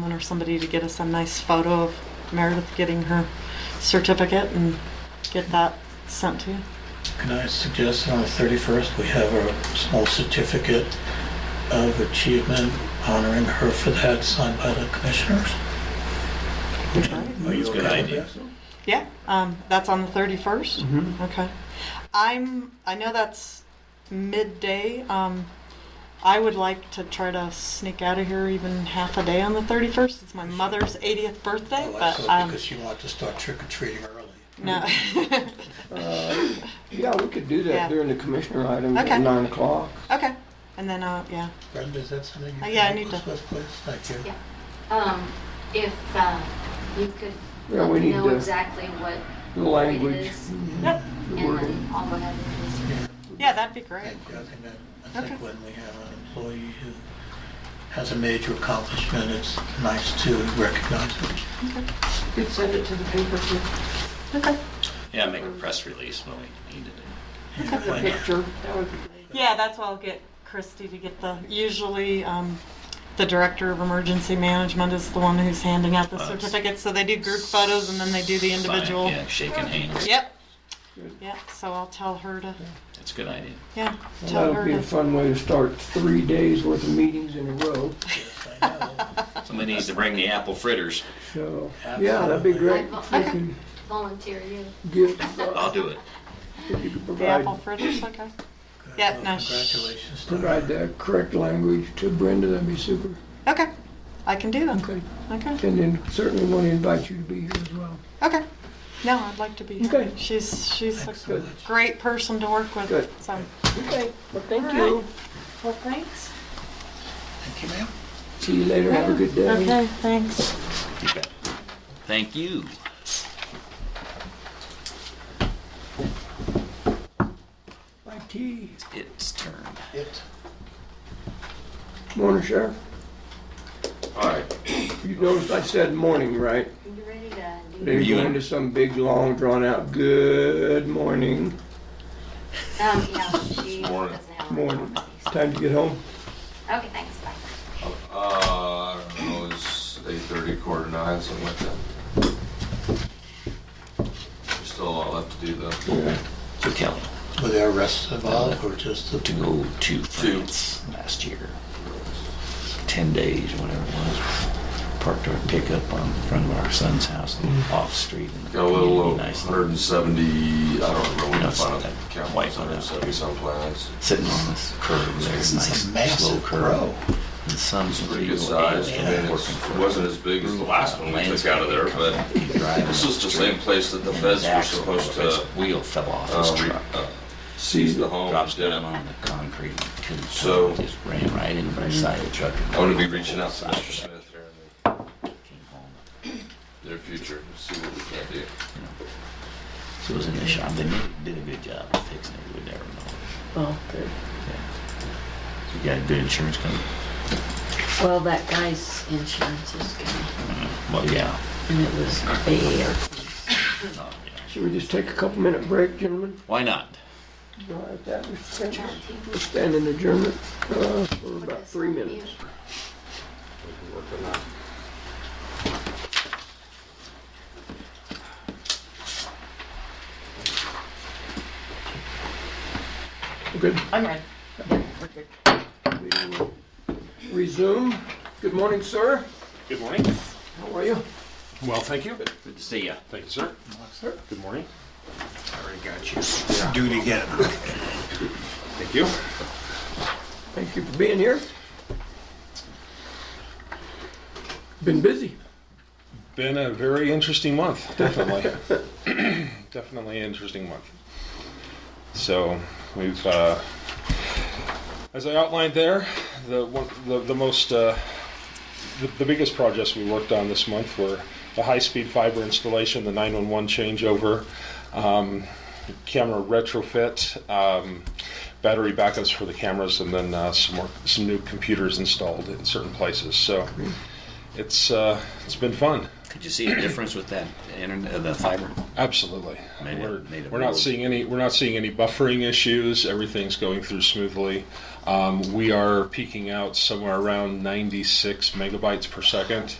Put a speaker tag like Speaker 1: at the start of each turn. Speaker 1: someone or somebody to get us a nice photo of Meredith getting her certificate and get that sent to you.
Speaker 2: Can I suggest on the 31st, we have a small certificate of achievement honoring her for that signed by the commissioners? Are you
Speaker 3: That's a good
Speaker 2: okay with
Speaker 3: idea.
Speaker 2: that?
Speaker 1: Yeah, um, that's on the 31st.
Speaker 3: Mhm.
Speaker 1: Okay. I'm, I know that's midday. Um, I would like to try to sneak out of here even half a day on the 31st. It's my mother's 80th birthday,
Speaker 2: Well, I
Speaker 1: but
Speaker 2: thought
Speaker 1: um,
Speaker 2: Oh, because you want to start trick or treating early.
Speaker 1: no.
Speaker 4: Uh, Yeah, we could do
Speaker 1: Yeah.
Speaker 4: that during the commissioner items
Speaker 1: Okay.
Speaker 4: at nine o'clock.
Speaker 1: okay. And then, uh, yeah.
Speaker 2: Brenda, is that something you
Speaker 1: Uh,
Speaker 2: can
Speaker 1: yeah, I
Speaker 2: help
Speaker 1: need
Speaker 2: us
Speaker 1: to-
Speaker 2: with, please? Thank you.
Speaker 5: Yeah. Um, if, uh, you could
Speaker 4: Yeah,
Speaker 5: let
Speaker 4: we
Speaker 5: me
Speaker 4: need
Speaker 5: know
Speaker 4: to-
Speaker 5: exactly what
Speaker 4: The
Speaker 5: it
Speaker 4: language,
Speaker 5: is,
Speaker 1: Yep.
Speaker 2: Mm-hmm.
Speaker 4: the
Speaker 5: and then
Speaker 4: wording.
Speaker 5: I'll go ahead and just
Speaker 1: Yeah, that'd be great.
Speaker 2: Thank you. I think that, I think
Speaker 1: Okay.
Speaker 2: when we have an employee who has a major accomplishment, it's nice to recognize it.
Speaker 4: Could send it to the paper too.
Speaker 1: Okay.
Speaker 3: Yeah, make a press release when we need to do.
Speaker 2: Yeah, why not?
Speaker 4: that would be great.
Speaker 1: Yeah, that's why I'll get Christy to get the, usually, um, the Director of Emergency Management is the one who's handing out the
Speaker 3: Us.
Speaker 1: certificates, so they do group photos and then they do the individual.
Speaker 3: Oh, Fine, Yeah, shaking hands.
Speaker 1: Yep.
Speaker 4: Good.
Speaker 1: Yep, so I'll tell her to,
Speaker 3: That's a good idea.
Speaker 1: yeah,
Speaker 4: That
Speaker 1: tell
Speaker 4: would
Speaker 1: her
Speaker 4: be a
Speaker 1: to.
Speaker 4: fun way to start three days worth of meetings in a row,
Speaker 2: Yes, I know.
Speaker 3: Somebody needs to bring the apple fritters.
Speaker 4: so, yeah, that'd be great. If you
Speaker 5: Okay.
Speaker 4: can
Speaker 5: volunteer you.
Speaker 4: give,
Speaker 3: I'll do it.
Speaker 4: if you could
Speaker 1: The apple
Speaker 4: provide,
Speaker 1: fritters, okay.
Speaker 2: Good.
Speaker 1: Yeah,
Speaker 2: Well,
Speaker 1: no, sh-
Speaker 2: Congratulations. to
Speaker 4: provide
Speaker 2: her.
Speaker 4: the correct language to Brenda, that'd be super.
Speaker 1: Okay, I can do them.
Speaker 4: Okay,
Speaker 1: Okay,
Speaker 4: and then certainly want to invite you to be here as well.
Speaker 1: okay. No, I'd like to be here.
Speaker 4: Okay.
Speaker 1: She's, she's a
Speaker 2: Excellent.
Speaker 1: great person to work with,
Speaker 4: Good.
Speaker 1: so.
Speaker 4: Okay, well,
Speaker 1: All
Speaker 4: thank
Speaker 1: right. Well, thanks.
Speaker 2: Thank you, ma'am.
Speaker 4: See you later, have a good day.
Speaker 1: Okay, thanks.
Speaker 3: You bet. Thank you.
Speaker 4: Bye, T.
Speaker 3: It's turn.
Speaker 2: It.
Speaker 4: Morning, Sheriff.
Speaker 3: All right.
Speaker 4: You noticed I said morning, right?
Speaker 5: You ready to do
Speaker 4: They
Speaker 3: You-
Speaker 4: go into some big, long, drawn-out, good morning,
Speaker 5: Um, yeah, she
Speaker 6: Morning.
Speaker 5: doesn't have. a
Speaker 4: morning.
Speaker 5: conference.
Speaker 4: Time to get home.
Speaker 5: Okay, thanks, bye.
Speaker 6: Uh, I don't know, it's eight thirty, quarter to nine, something like that. There's still a lot left to do though.
Speaker 4: Yeah.
Speaker 3: So Kelly,
Speaker 2: Were there arrests involved or just the
Speaker 3: to
Speaker 2: two?
Speaker 3: go to France last year, ten days, whatever it was, parked our pickup on in front of our son's house,
Speaker 2: Mm.
Speaker 3: off street. in the
Speaker 6: Got a little
Speaker 3: community,
Speaker 6: over
Speaker 3: nice
Speaker 6: hundred and seventy, I don't remember when the
Speaker 3: That's
Speaker 6: final
Speaker 3: that
Speaker 6: count
Speaker 3: white
Speaker 6: was,
Speaker 3: one
Speaker 6: hundred and seventy some plants.
Speaker 3: sitting on this curb there,
Speaker 2: This
Speaker 3: nice
Speaker 2: is a
Speaker 3: slow
Speaker 2: massive
Speaker 3: curve.
Speaker 2: grow.
Speaker 3: The sun's
Speaker 6: Pretty
Speaker 3: real
Speaker 6: good size, I
Speaker 3: age,
Speaker 6: mean,
Speaker 3: yeah, working
Speaker 6: it's-
Speaker 3: for uh,
Speaker 6: it wasn't as big as the last one we took out of there, but
Speaker 3: landscape company, driving
Speaker 6: this
Speaker 3: up
Speaker 6: is the
Speaker 3: street,
Speaker 6: same place that the
Speaker 3: and
Speaker 6: feds were
Speaker 3: axle
Speaker 6: supposed
Speaker 3: of his
Speaker 6: to,
Speaker 3: Wheel fell off his
Speaker 6: um,
Speaker 3: truck.
Speaker 6: uh, seize the home.
Speaker 3: Drops
Speaker 6: did it.
Speaker 3: down on the concrete, two
Speaker 6: So-
Speaker 3: tons, just ran right into the side of the truck. and
Speaker 6: I'm gonna be
Speaker 3: broke the
Speaker 6: reaching
Speaker 3: whole
Speaker 6: out to
Speaker 3: side of
Speaker 6: Mr.
Speaker 3: the truck.
Speaker 6: Smith here in
Speaker 3: Came home,
Speaker 6: the near future, and see what we can do.
Speaker 3: you know. So it was in the shop, they made- did a good job of fixing it, we never know.
Speaker 7: Oh, good.
Speaker 3: So You got a good insurance company?
Speaker 7: Well, that guy's insurance is good,
Speaker 3: Well, yeah.
Speaker 7: and it was bad.
Speaker 3: Oh, yeah.
Speaker 4: Should we just take a couple-minute break, gentlemen?
Speaker 3: Why not?
Speaker 4: All right, that was, we're standing adjournment uh, for about three minutes. Good.
Speaker 7: I'm ready. Yeah, we're good.
Speaker 4: We will Resume. Good morning, sir.
Speaker 8: Good morning.
Speaker 4: How are you?
Speaker 8: Well, thank you.
Speaker 3: Good to see ya.
Speaker 8: Thank you, sir.
Speaker 4: Sir.
Speaker 8: Good morning.
Speaker 2: Do it again.
Speaker 8: Thank you.
Speaker 4: Thank you for being here. Been busy.
Speaker 8: Been a very interesting month, definitely. definitely an interesting month. So we've, uh, as I outlined there, the one, the, the most, uh, the, the biggest projects we worked on this month were the high-speed fiber installation, the 911 changeover, um, camera retrofit, um, battery backups for the cameras, and then uh, some more, some new computers installed in certain places. So it's uh, it's been fun.
Speaker 3: Could you see a difference with that internet, uh, the fiber?
Speaker 8: Absolutely.
Speaker 3: Made it-
Speaker 8: We're,
Speaker 3: made it
Speaker 8: we're not
Speaker 3: work.
Speaker 8: seeing any, we're not seeing any buffering issues. Everything's going through smoothly. Um, we are peaking out somewhere around 96 megabytes per second.